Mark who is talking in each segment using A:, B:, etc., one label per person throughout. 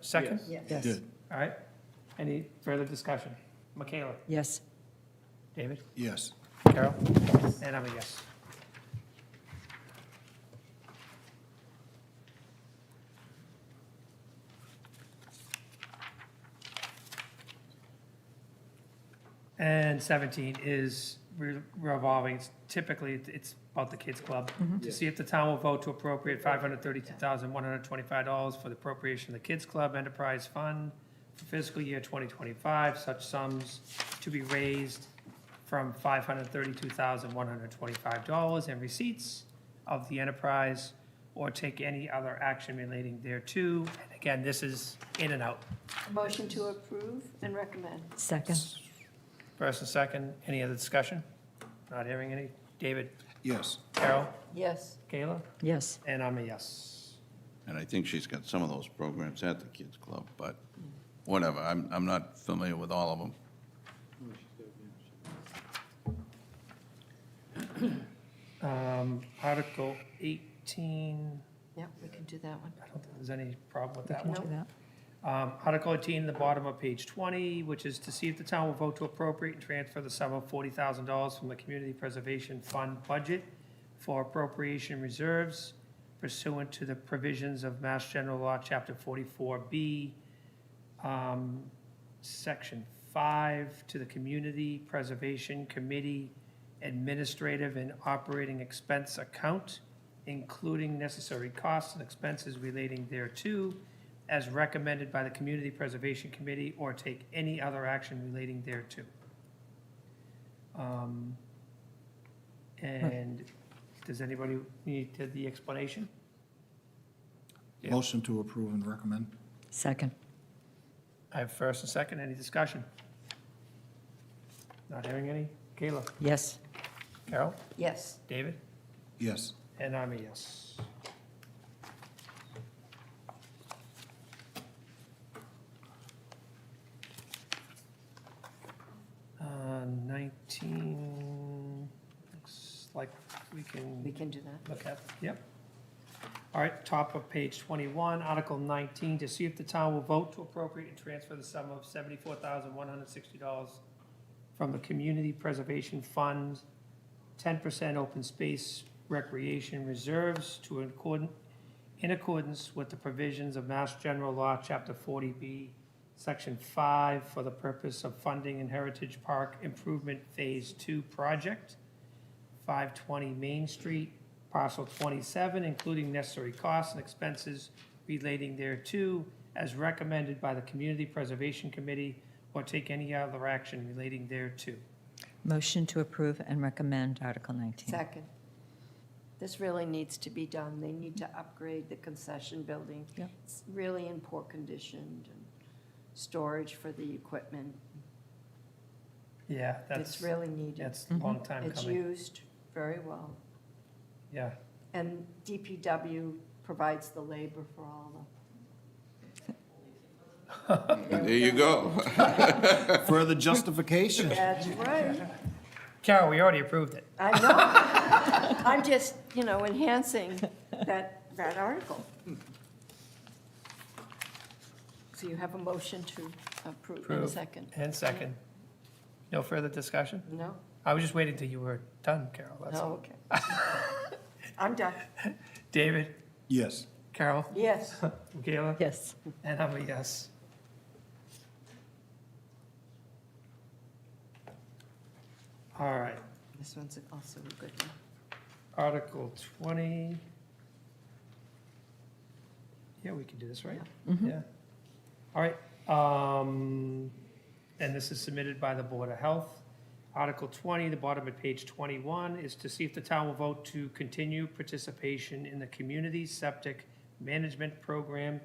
A: Second?
B: Yes.
C: Yes.
D: Good.
A: All right. Any further discussion? Michaela,
C: Yes.
A: David,
D: Yes.
A: Carol, and I'm a yes. And 17 is re- revolving, It's typically, it's- it's about the kids' club, to see if the town will vote to appropriate $532,125 for the appropriation of the Kids Club Enterprise Fund for fiscal year 2025, such sums to be raised from $532,125 in receipts of the enterprise, or take any other action relating thereto. And again, this is in and out.
B: Motion to approve and recommend.
C: Second.
A: First and second, any other discussion? Not hearing any. David,
D: Yes.
A: Carol,
B: Yes.
A: Kayla,
C: Yes.
A: and I'm a yes.
E: And I think she's got some of those programs at the kids' club, but whatever, I'm, I'm not familiar with all of them.
A: Um, Article 18,
B: Yep, we can do that one.
A: I don't think there's any problem with that
C: Can
A: one.
C: do that.
A: Um, Article 18, the bottom of page 20, which is to see if the town will vote to appropriate and transfer the sum of $40,000 from the Community Preservation Fund budget for appropriation reserves pursuant to the provisions of Mass General Law, Chapter 44B, um, Section 5, to the Community Preservation Committee Administrative and Operating Expense Account, including necessary costs and expenses relating thereto, as recommended by the Community Preservation Committee, or take any other action relating thereto. Um, And does anybody need to- the explanation? Yeah.
D: Motion to approve and recommend?
C: Second.
A: I have first and second, any discussion? Not hearing any? Kayla?
C: Yes.
A: Carol?
B: Yes.
A: David?
D: Yes.
A: And I'm a yes. Uh, 19, looks like we can
B: We can do that.
A: look at, yep. All right, top of page 21, Article 19, to see if the town will vote to appropriate and transfer the sum of $74,160 from the Community Preservation Fund, 10% open space recreation reserves to accord, in accordance with the provisions of Mass General Law, Chapter 40B, Section 5, for the purpose of funding in Heritage Park Improvement Phase 2 project, 520 Main Street, parcel 27, including necessary costs and expenses relating thereto, as recommended by the Community Preservation Committee, or take any other action relating thereto.
C: Motion to approve and recommend Article 19.
B: Second. This really needs to be done. They need to upgrade the concession building.
C: Yep.
B: It's really in poor condition and storage for the equipment.
A: Yeah,
B: It's
A: that's,
B: really needed.
A: that's a long time
B: It's
A: coming.
B: used very well.
A: Yeah,
B: And DPW provides the labor for all
E: There you go.
D: Further justification?
B: the. That's right.
A: Carol, we already approved it.
B: I know. I'm just, you know, enhancing that, that article. So you have a motion to approve in a
A: Approve.
B: second?
A: And second, no further discussion?
B: No?
A: I was just waiting till you were done, Carol, that's all.
B: No, okay. I'm done.
A: David,
D: Yes.
A: Carol,
B: Yes.
A: Michaela?
C: Yes.
A: And I'm a yes. All right,
B: This one's also a good one.
A: Article 20. Yeah, we can do this, right? Yeah. All right, um, and this is submitted by the Board of Health. Article 20, the bottom of page 21, is to see if the town will vote to continue participation in the Community Septic Management Program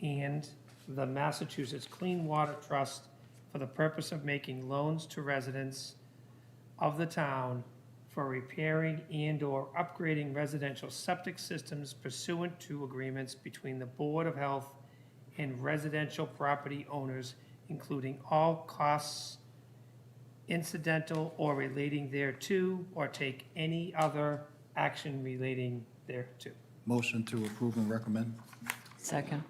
A: and the Massachusetts Clean Water Trust for the purpose of making loans to residents of the town for repairing and/or upgrading residential septic systems pursuant to agreements between the Board of Health and residential property owners, including all costs incidental or relating thereto, or take any other action relating thereto.
D: Motion to approve and recommend?
C: Second.